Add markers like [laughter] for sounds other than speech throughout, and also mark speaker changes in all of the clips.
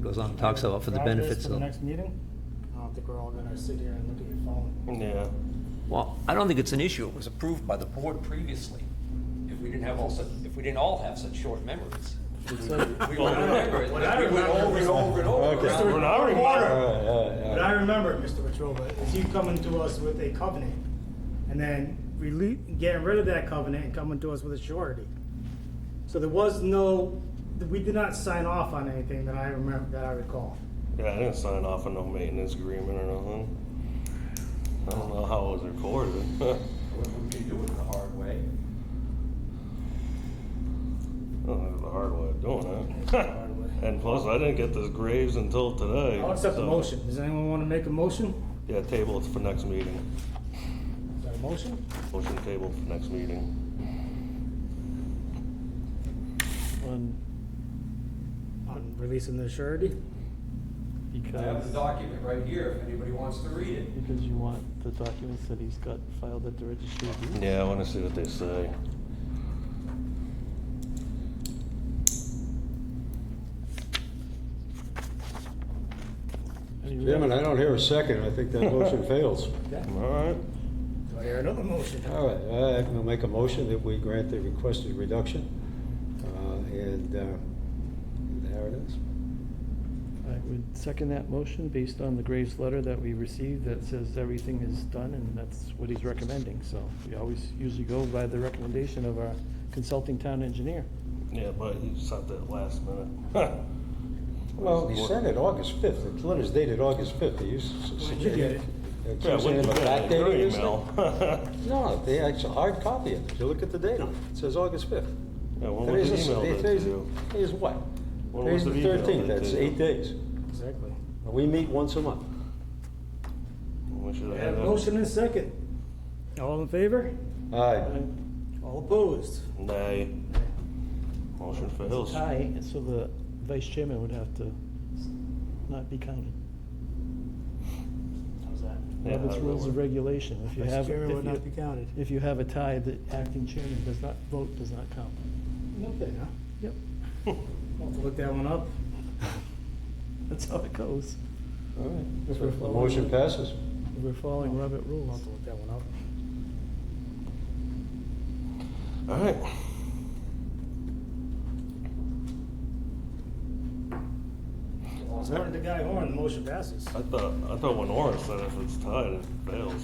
Speaker 1: goes on and talks about for the
Speaker 2: Grab this
Speaker 1: benefits
Speaker 2: For the
Speaker 1: of,
Speaker 2: next meeting? I don't think we're all gonna sit here and look at your phone.
Speaker 3: Yeah.
Speaker 1: well, I don't think it's an issue. It was approved by the board previously. If we didn't have all such, if we didn't all have such short memories. We would remember it, we
Speaker 2: What I
Speaker 1: went
Speaker 2: remember
Speaker 1: over and over and over.
Speaker 2: Okay.
Speaker 1: around.
Speaker 3: We're not
Speaker 2: Water.
Speaker 3: remembering.
Speaker 2: But I remember, Mr. Petrova, is you coming to us with a covenant and then rele- getting rid of that covenant and coming to us with a surety. So there was no, we did not sign off on anything that I remember, that I recall.
Speaker 3: Yeah, I didn't sign off on no maintenance agreement or nothing. I don't know how it was recorded. [laughs]
Speaker 4: What would we do it the hard way?
Speaker 3: Oh, that was the hard way of doing it. [laughs] and plus, I didn't get this Graves until today.
Speaker 2: I'll accept the
Speaker 3: so-
Speaker 2: motion. Does anyone want to make a motion?
Speaker 3: Yeah, table it for next meeting.
Speaker 2: Is that a motion?
Speaker 3: Motion table for next meeting.
Speaker 5: on,
Speaker 2: On releasing the surety?
Speaker 4: I have the
Speaker 5: because,
Speaker 4: document right here if anybody wants to read it.
Speaker 5: because you want the documents that he's got filed at the registry of deeds.
Speaker 3: Yeah, I want to see what they say.
Speaker 5: And you-
Speaker 6: Chairman, I don't hear a second. I think that motion
Speaker 3: [laughs]
Speaker 6: fails.
Speaker 3: All right.
Speaker 2: Do I hear another motion?
Speaker 6: All right, I will make a motion that we grant the requested reduction. Uh, And uh, there it is.
Speaker 5: I would second that motion based on the Graves letter that we received that says everything is done and that's what he's recommending. So we always usually go by the recommendation of our consulting town engineer.
Speaker 3: Yeah, but you sent that last minute. [laughs]
Speaker 6: Well, he sent it August 5th. The letter's dated August 5th. They used to
Speaker 2: When did you get it?
Speaker 3: yeah, when you got your email.
Speaker 6: No, they, it's a hard copy of it. You look at the date on it. It says August 5th.
Speaker 3: [laughs] yeah, when was
Speaker 6: Today's
Speaker 3: the email
Speaker 6: the-
Speaker 3: that
Speaker 6: Today's
Speaker 3: to you?
Speaker 6: today's what?
Speaker 3: When
Speaker 6: Today's
Speaker 3: was
Speaker 6: the
Speaker 3: the email
Speaker 6: 13th.
Speaker 3: that to
Speaker 6: That's
Speaker 3: you?
Speaker 6: eight days.
Speaker 2: Exactly.
Speaker 6: We meet once a month.
Speaker 3: We should
Speaker 2: I
Speaker 3: have
Speaker 2: have
Speaker 3: had
Speaker 2: a
Speaker 3: that.
Speaker 2: motion and a second. All in favor?
Speaker 6: All right.
Speaker 2: All opposed?
Speaker 3: Nay. Motion fails.
Speaker 5: Aye, and so the vice chairman would have to s- not be counted.
Speaker 2: How's that?
Speaker 3: Yeah,
Speaker 5: Robert's
Speaker 3: that
Speaker 5: rules of
Speaker 3: works.
Speaker 5: regulation, if you
Speaker 2: Vice
Speaker 5: have.
Speaker 2: chairman
Speaker 5: if
Speaker 2: would
Speaker 5: you-
Speaker 2: not be counted.
Speaker 5: If you have a tie, the acting chairman does not, vote does not count.
Speaker 2: Nothing, huh?
Speaker 5: Yep,
Speaker 2: I'll have to look that one up.
Speaker 5: that's how it goes.
Speaker 6: All right.
Speaker 5: If
Speaker 6: So
Speaker 5: we're
Speaker 6: the
Speaker 5: following-
Speaker 6: Motion passes.
Speaker 5: If We're following Robert
Speaker 2: I'll have
Speaker 5: rules.
Speaker 2: to look that one up.
Speaker 3: All right.
Speaker 2: According to Guy Horn, the motion passes.
Speaker 3: I thought, I thought when Orin said if it's tied, it fails.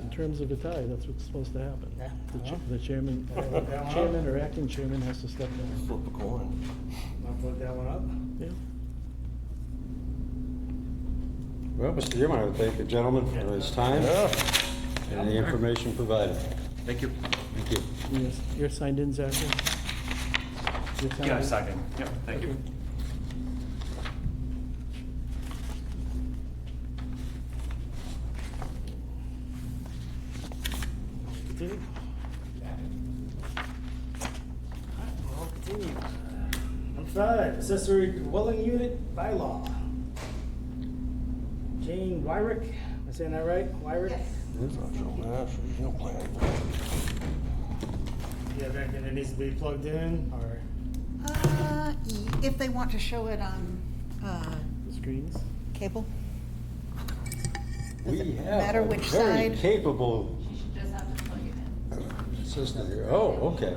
Speaker 5: In terms of a tie, that's what's supposed to happen.
Speaker 2: Yeah.
Speaker 5: The cha- The chairman, uh,
Speaker 2: [laughs] Yeah.
Speaker 5: chairman or acting chairman has to step down.
Speaker 3: Flip a coin.
Speaker 2: I'll put that one up.
Speaker 5: Yeah.
Speaker 6: Well, Mr. Chairman, I would thank the gentleman for his time
Speaker 3: Yeah.
Speaker 6: and the information provided.
Speaker 7: Thank you.
Speaker 6: Thank you.
Speaker 5: You're- You're signed in, Zachary? You're signed
Speaker 7: Yeah, I
Speaker 5: in?
Speaker 7: signed in. Yep, thank you.
Speaker 2: Continue. Alright, well, continue. Number five, accessory dwelling unit bylaw. Jane Wyrick, am I saying that right? Wyrick?
Speaker 8: Yes.
Speaker 3: It's not your match, you don't play
Speaker 2: Yeah, that, that needs to be plugged in, or?
Speaker 8: Uh, y- If they want to show it on uh,
Speaker 5: Screens?
Speaker 8: cable?
Speaker 6: We
Speaker 8: Does it
Speaker 6: have
Speaker 8: matter
Speaker 6: a
Speaker 8: which
Speaker 6: very
Speaker 8: side?
Speaker 6: capable
Speaker 8: Just have to plug it in.
Speaker 6: system here. Oh, okay.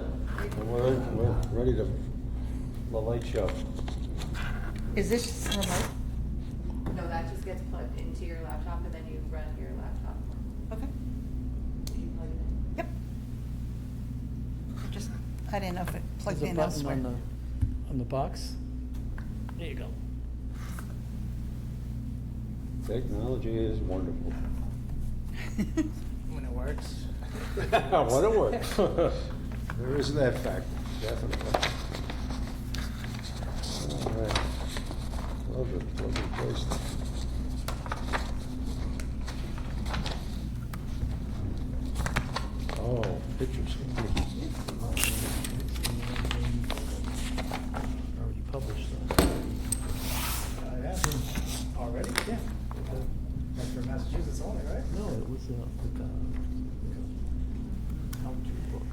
Speaker 6: Well, We're, we're ready to, the light show.
Speaker 8: Is this remote?
Speaker 9: No, that just gets plugged into your laptop and then you run your laptop.
Speaker 8: Okay,
Speaker 9: You plug it in.
Speaker 8: yep. Just, I didn't know if it plugged
Speaker 5: There's a
Speaker 8: in
Speaker 5: button
Speaker 8: elsewhere.
Speaker 5: on the, on the box. There you go.
Speaker 6: Technology is wonderful.
Speaker 8: [laughs]
Speaker 2: When it works.
Speaker 6: [laughs] What a work.
Speaker 3: that.
Speaker 6: There is that fact, definitely. All right. Love it, love it, place. Oh, pictures.
Speaker 5: Already published, though.
Speaker 2: I have, already, yeah. That's for Massachusetts only, right?
Speaker 5: No, it was, uh, the, uh,
Speaker 2: No.
Speaker 5: book.